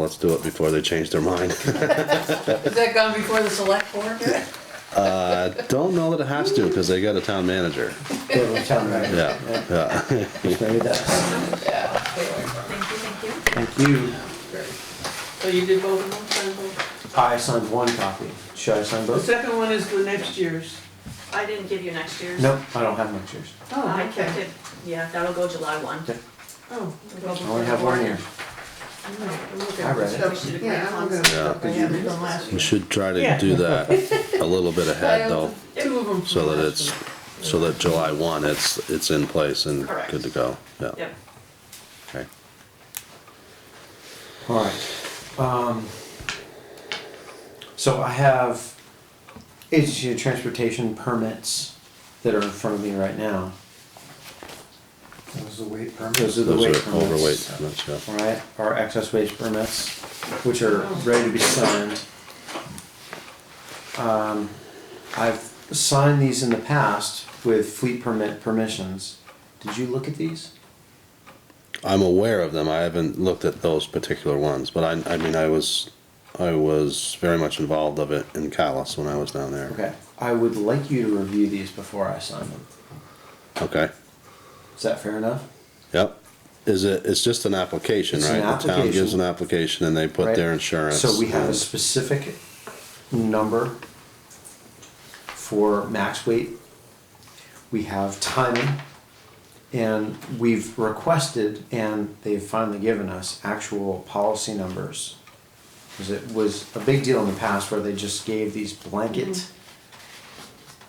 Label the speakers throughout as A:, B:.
A: Let's do it before they change their mind.
B: Has that gone before the select board?
A: I Uh, don't know that it has to, because they got a town manager.
C: They were telling me.
A: Yeah, yeah.
C: Maybe that's-
B: Yeah.
D: Thank you, thank
C: Thank you.
B: So you did both of them, signed both?
C: I signed one copy. Should I sign
E: The
C: both?
E: second one is the next year's.
D: you. I didn't give you next year's.
C: No, I don't have much yours.
D: I kept it, yeah, that'll go July one.
C: Okay.
E: Oh,
C: I only have one here. I read it.
D: So we should agree on some.
A: You should try to
E: Yeah.
A: do that a little bit ahead though,
B: Two of them.
A: so that it's, so that July one, it's, it's in place and good to go, yeah,
D: Yep.
A: okay.
C: Alright, um. So I have agency of transportation permits that are in front of me right now.
F: Those are the weight permits.
C: Those are the weight
A: Those are overweight
C: permits.
A: permits, yeah.
C: Alright, our excess weight permits, which are ready to be signed. Um, I've signed these in the past with fleet permit permissions. Did you look at these?
A: I'm aware of them. I haven't looked at those particular ones, but I, I mean, I was, I was very much involved of it in Callis when I was down there.
C: Okay, I would like you to review these before I sign them.
A: Okay.
C: Is that fair enough?
A: Yep. Is it? It's just an application,
C: It's
A: right?
C: an
A: The town gives
C: application.
A: an application, and they put
C: Right.
A: their insurance.
C: So we have a
A: and-
C: specific number for max weight. We have timing. And we've requested, and they've finally given us actual policy numbers. Because it was a big deal in the past where they just gave these blanket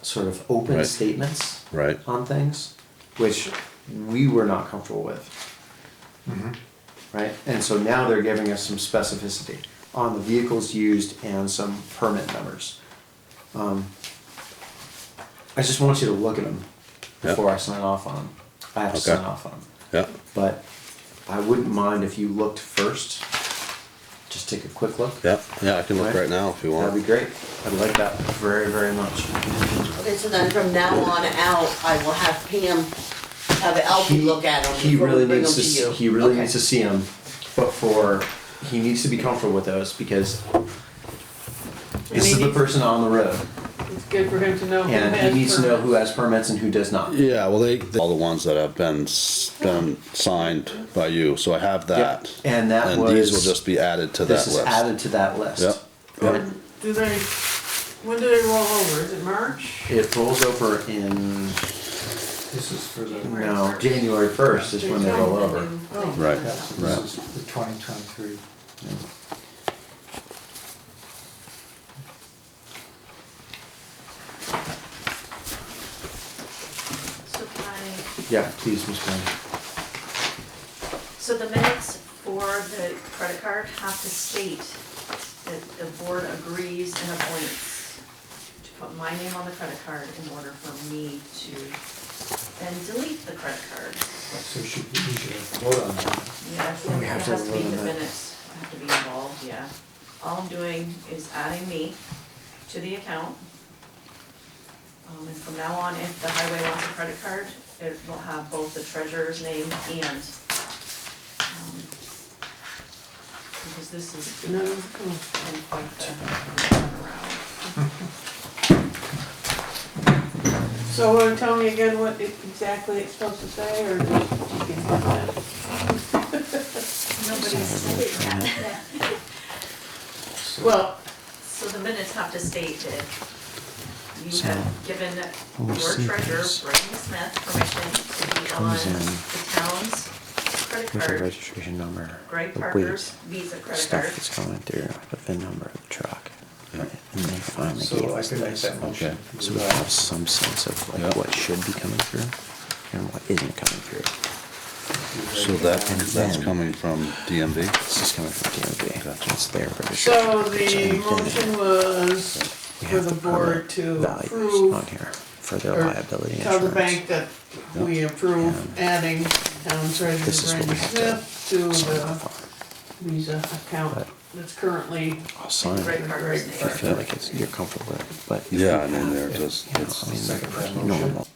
C: sort of open
A: Right.
C: statements
A: right.
C: on things, which we were not comfortable with. Right? And so now they're giving us some specificity on the vehicles used and some permit numbers. Um, I just want you to look at them
A: Yep.
C: before I sign off on them. I have to
A: Okay.
C: sign off on them.
A: Yep.
C: But I wouldn't mind if you looked first. Just take a quick look.
A: Yep. Yeah, I can look
C: Right.
A: right now if you
C: That'd be
A: want.
C: great. I'd like that very, very much.
G: Okay, so then from now on out, I will have Pam, have Alfie look at them
C: He
G: before we
C: really
G: bring them
C: needs to,
G: to
C: s-
G: you.
C: he really
G: Okay.
C: needs to see them before, he needs to be comfortable with those because this is the person on the road
E: it's good for him to know. who
C: and
E: has
C: he needs to know
E: permits.
C: who has permits and who does not.
A: Yeah. Well, they, they all the ones that have been s- been signed by you, so I have
C: Yep.
A: that.
C: And that
A: And these will
C: was,
A: just be added to
C: this
A: that
C: is
A: list.
C: added to that list.
A: Yep. Yep.
E: Do they, when do they roll over? Is it March?
C: It rolls over in,
F: This is for the,
C: no, January first is when they roll over.
E: Oh,
A: Right.
F: this is the twenty twenty-three.
D: So can I,
C: Yeah, please, Ms. Brown.
D: so the minutes for the credit card have to state that the board agrees and appoints to put my name on the credit card in order for me to then delete the credit card.
F: So should we, we should vote on that.
D: Yeah,
C: Oh, we
D: it
C: have to
D: has to be in the
C: vote on that.
D: minutes, I have to be involved, yeah. All I'm doing is adding me to the account. Um, and from now on, if the highway wants a credit card, it will have both the treasurer's name and, um, because this is
E: no, oh.
D: in quite
E: So uh, tell me again what it- exactly it's supposed to say, or just- you can put that.
D: Nobody's said it yet.
E: Well,
D: So the minutes have to state that you have given your treasurer, Brittany Smith, permission to be on
C: comes in
D: the town's credit
C: With the
D: card,
C: registration number,
D: Greg
C: the
D: Parker's
C: weight,
D: Visa credit
C: stuff
D: card.
C: that's coming through, the VIN number of the truck. And they finally
F: So
C: gave
F: I
C: us
F: can make
C: this.
F: that motion.
C: So we have some sense of
A: Yeah.
C: like what should be coming through and what isn't coming through.
A: So that that's
C: then-
A: coming from DMV.
C: This is coming from DMV,
A: Gotcha.
C: it's their registration.
E: so
C: number, it's
E: the
C: in there.
E: motion was for
C: We have
E: the
C: permit
E: board to
C: Values on
E: approve,
C: here for their
E: or
C: liability
E: tell the
C: insurance.
E: bank that we approve adding town treasurer
C: This is what we
E: Randy
C: have to
E: Smith to
C: sign
E: the
C: off
E: Visa account
C: But-
E: that's currently
C: on. I'll sign it,
D: Greg Parker's
E: Greg
D: name.
C: I feel like it's, you're comfortable with it, but. if
A: Yeah,
C: you
A: I mean,
C: have
A: they're
C: it,
A: just-
C: you know,
A: it's-
C: I mean,
F: Second
C: they're
F: motion.
C: normal.